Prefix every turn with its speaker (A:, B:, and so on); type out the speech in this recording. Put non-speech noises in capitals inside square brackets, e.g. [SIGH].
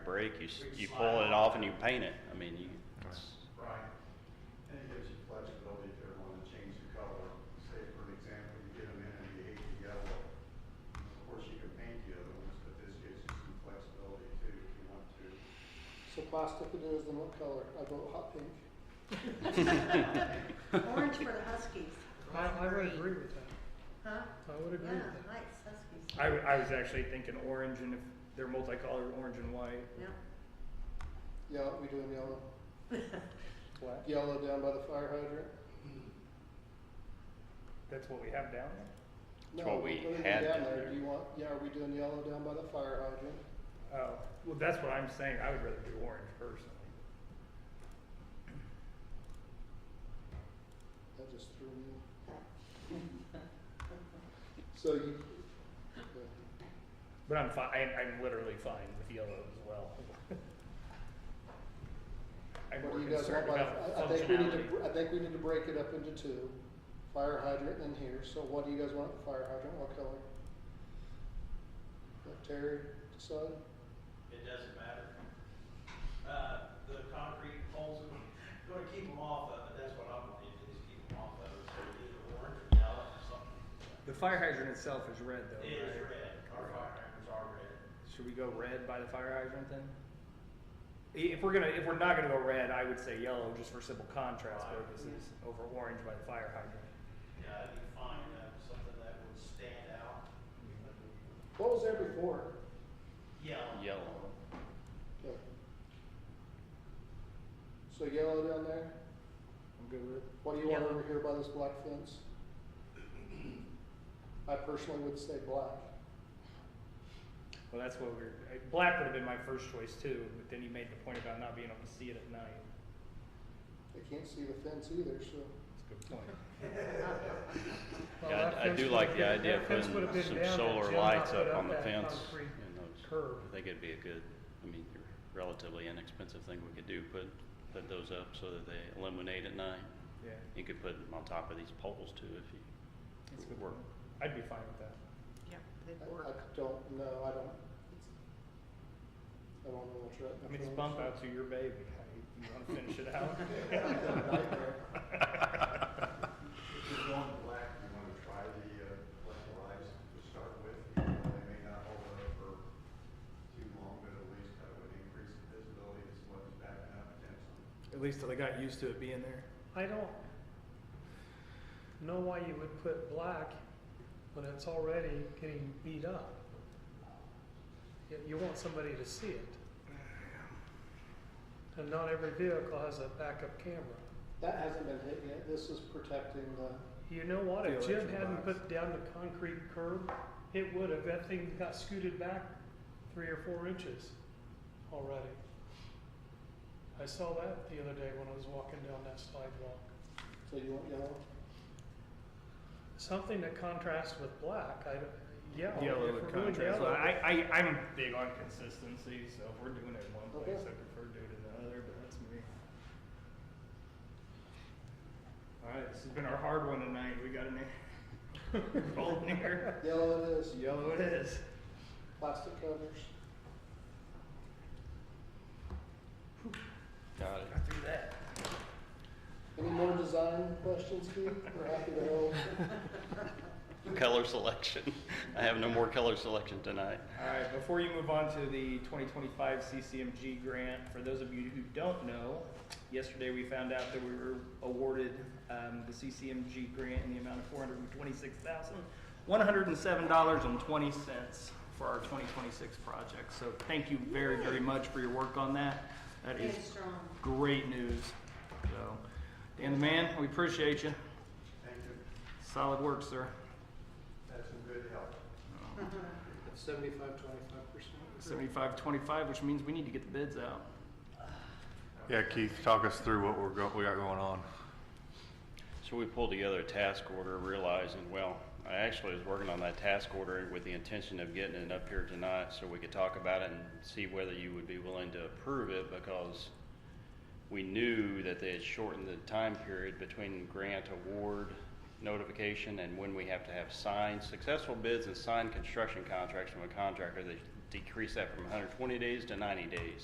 A: break, you, s- you pull it off and you paint it. I mean, you, it's-
B: Right. And it gives you flexibility if you want to change the color. Say, for example, you get them in and you hate the yellow. Of course, you can paint the other ones, but this gives you some flexibility too if you want to.
C: So plastic it is, then what color? I vote hot pink.
D: Orange for the Huskies,
E: I, I would agree with that.
D: huh?
E: I would agree
D: Yeah,
E: with that.
D: nice, Huskies.
F: I, w- I was actually thinking orange and if they're multicolored, orange and white.
D: Yeah,
C: Yeah, we doing yellow.
F: What?
C: Yellow down by the fire hydrant.
F: That's what we have down there?
C: No,
A: what we
C: put it
A: had
C: down
A: down
C: there.
A: there.
C: Do you want? Yeah, are we doing yellow down by the fire hydrant?
F: Oh, well, that's what I'm saying. I would rather do orange personally.
C: That just threw me.
E: [LAUGHS]
C: so you.
F: But I'm fine, I'm literally fine with yellow as well. [LAUGHS] I'm
C: What
F: more
C: do you guys want
F: concerned
C: by?
F: about
C: I, I think we need to.
F: functionality.
C: br- I think we need to break it up into two. Fire hydrant and here. So what do you guys want at the fire hydrant? What color? Let Terry decide.
G: It doesn't matter. Uh, the concrete poles are gonna keep them off of it, that's what I'm gonna do, is keep them off of it, so either orange or yellow or something.
F: The fire hydrant itself is red though,
G: It is
F: right?
G: red, our fire hydrants are red.
F: Should we go red by the fire hydrant then? I- If we're gonna, if we're not gonna go red, I would say yellow just for simple contrast
G: Right.
F: purposes over orange by the fire hydrant.
G: Yeah, you find uh, something that would stand out, Mm-hmm.
C: What was there before?
G: yellow.
A: yellow.
C: Okay. So yellow down there,
F: I'm good with it.
C: what do you want
E: Yellow.
C: over here by this black fence? I personally would say black.
F: Well, that's what we're, uh, black would have been my first choice too, but then you made the point about not being able to see it at night.
C: They can't see the fence either, so.
F: That's a good point.
E: Well,
A: Yeah,
E: that
A: I I
E: fence
A: do
E: would've
A: like
E: been-
A: the idea
E: that
A: of
E: fence
A: putting
E: would've been
A: some
E: down, that
A: solar
E: Jim
A: lights
E: put
A: up on the
E: that
A: fence
E: concrete
A: in those.
E: Curb.
A: I think it'd be a good, I mean, they're relatively inexpensive thing we could do, put, put those up so that they illuminate at night.
F: Yeah,
A: You could put them on top of these poles too if you,
F: that's a good
A: Work.
F: point. I'd be fine with that.
D: yeah,
C: I- I don't know, I don't. I don't know what's right.
F: I mean, it's bump out to your baby. How you, you [LAUGHS] wanna finish it out?
B: If you're going black, you want to try the, uh, black lives to start with. even though They may not hold up for too long, but at least that would increase the visibility as well as backing up potentially.
F: At least till they got used to it being there.
E: I don't know why you would put black when it's already getting beat up. You, you want somebody to see it. And not every vehicle has a backup camera.
C: That hasn't been hit yet, this is protecting the,
E: You know what, if
F: The
E: Jim
F: electric
E: hadn't
F: box.
E: put down the concrete curb, it would have, that thing got scooted back three or four inches already. I saw that the other day when I was walking down that sidewalk.
C: so you want yellow?
E: Something that contrasts with black, I, yeah.
F: Yellow
E: if
F: would
E: we're doing
F: contrast.
E: yellow-
F: I, I, I'm big on consistency, so if we're doing it in one place,
C: Okay.
F: I prefer doing it in the other, but that's me. All right, this has been our hard one tonight. We got an [LAUGHS] air. Golden air.
C: Yellow it is,
F: Yellow it is.
C: plastic covers.
A: got it.
F: Got through that.
C: Any more design questions, Keith? We're happy to help.
A: Color selection. [LAUGHS] I have no more color selection tonight.
F: All right, before you move on to the 2025 CCMG grant, for those of you who don't know, yesterday we found out that we were awarded um, the CCMG grant in the amount of $426,107.20 for our 2026 project. So thank you very, very much for your work on that. That is
D: and strong.
F: great news. So, Dan the man, we appreciate you.
B: Thank you.
F: Solid work, sir.
B: That's some good help.
C: Seventy-five, twenty-five percent.
F: 75-25, which means we need to get the bids out.
H: Yeah, Keith, talk us through what we're go, we got going on.
A: So we pulled together a task order, realizing, well, I actually was working on that task order with the intention of getting it up here tonight so we could talk about it and see whether you would be willing to approve it because we knew that they had shortened the time period between grant award notification and when we have to have signed successful bids and signed construction contracts from a contractor. They decreased that from 120 days to 90 days.